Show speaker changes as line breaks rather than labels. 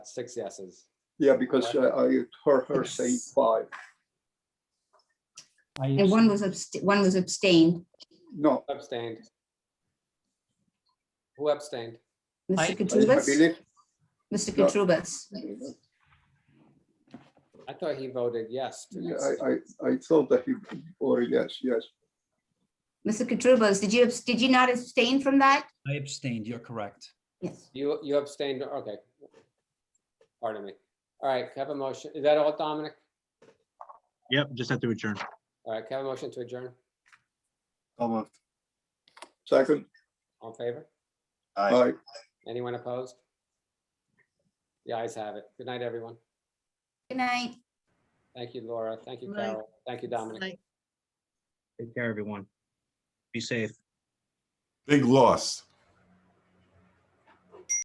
Six yeses.
Yeah, because uh, I heard her saying five.
I
And one was abst- one was abstained.
No,
Abstained. Who abstained?
I-
Mr.
I I
Katrubas,
believe,
Mr.
no.
Katrubas.
I thought he voted yes. to
yeah,
this.
I, I, I thought that he, or yes, yes.
Mr. Katrubas, did you, abs- did you not abstain from that?
I abstained, you're correct.
Yes.
You, you abstained, okay. Pardon me. All right, can I have a motion. Is that all, Dominic?
Yep, just have to adjourn.
All right, can I have a motion to adjourn?
Second,
All in favor?
aye.
Anyone opposed? The ayes have it. Good night, everyone.
Good night.
Thank you, Laura. Thank you,
Good night.
Carol. Thank you, Dominic.
Take care, everyone. Be safe.
Big loss.